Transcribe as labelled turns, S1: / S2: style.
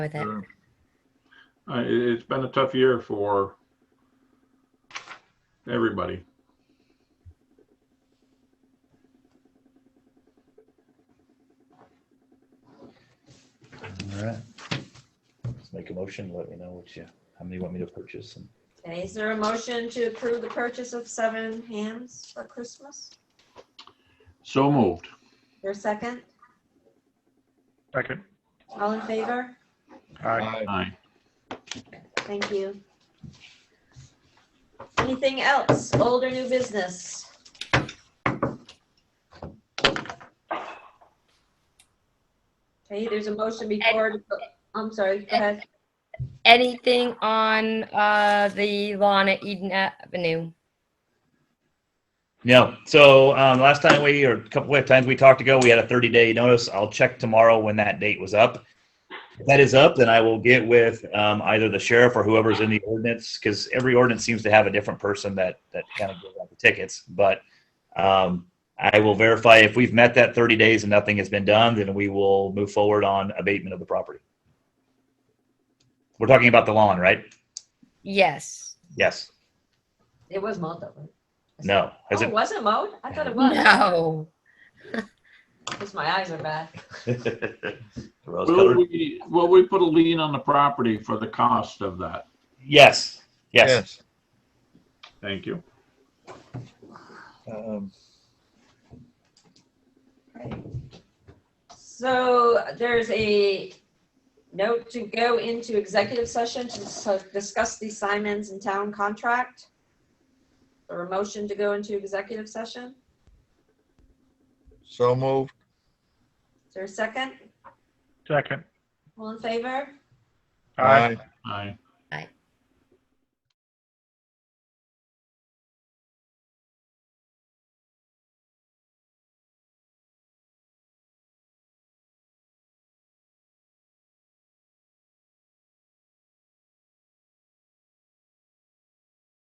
S1: with it.
S2: Sure. Uh, it, it's been a tough year for everybody.
S3: All right. Let's make a motion. Let me know what you, how many you want me to purchase and
S4: Okay, is there a motion to approve the purchase of seven hams for Christmas?
S2: So moved.
S4: Your second?
S5: Second.
S4: All in favor?
S5: Aye.
S2: Aye.
S4: Thank you. Anything else? Old or new business? Okay, there's a motion before, I'm sorry, go ahead.
S1: Anything on uh, the lawn at Eden Avenue?
S3: No. So um, last time we, or a couple of times we talked ago, we had a 30 day notice. I'll check tomorrow when that date was up. If that is up, then I will get with um, either the sheriff or whoever's in the ordinance, because every ordinance seems to have a different person that, that kind of gives out the tickets. But um, I will verify if we've met that 30 days and nothing has been done, then we will move forward on abatement of the property. We're talking about the lawn, right?
S1: Yes.
S3: Yes.
S4: It was mowed though. right?
S3: No. Has
S4: Oh,
S3: it?
S4: was it mowed? I thought it was.
S1: No.
S4: Because my eyes are bad.
S3: Rose
S2: Will
S3: colored?
S2: we, will we put a lien on the property for the cost of that?
S3: Yes. Yes.
S2: Thank you.
S3: Um,
S4: So there's a note to go into executive session to s- discuss the Simons and Town contract. Or a motion to go into executive session.
S6: So moved.
S4: Is there a second?
S5: Second.
S4: All in favor?
S5: Aye.
S2: Aye.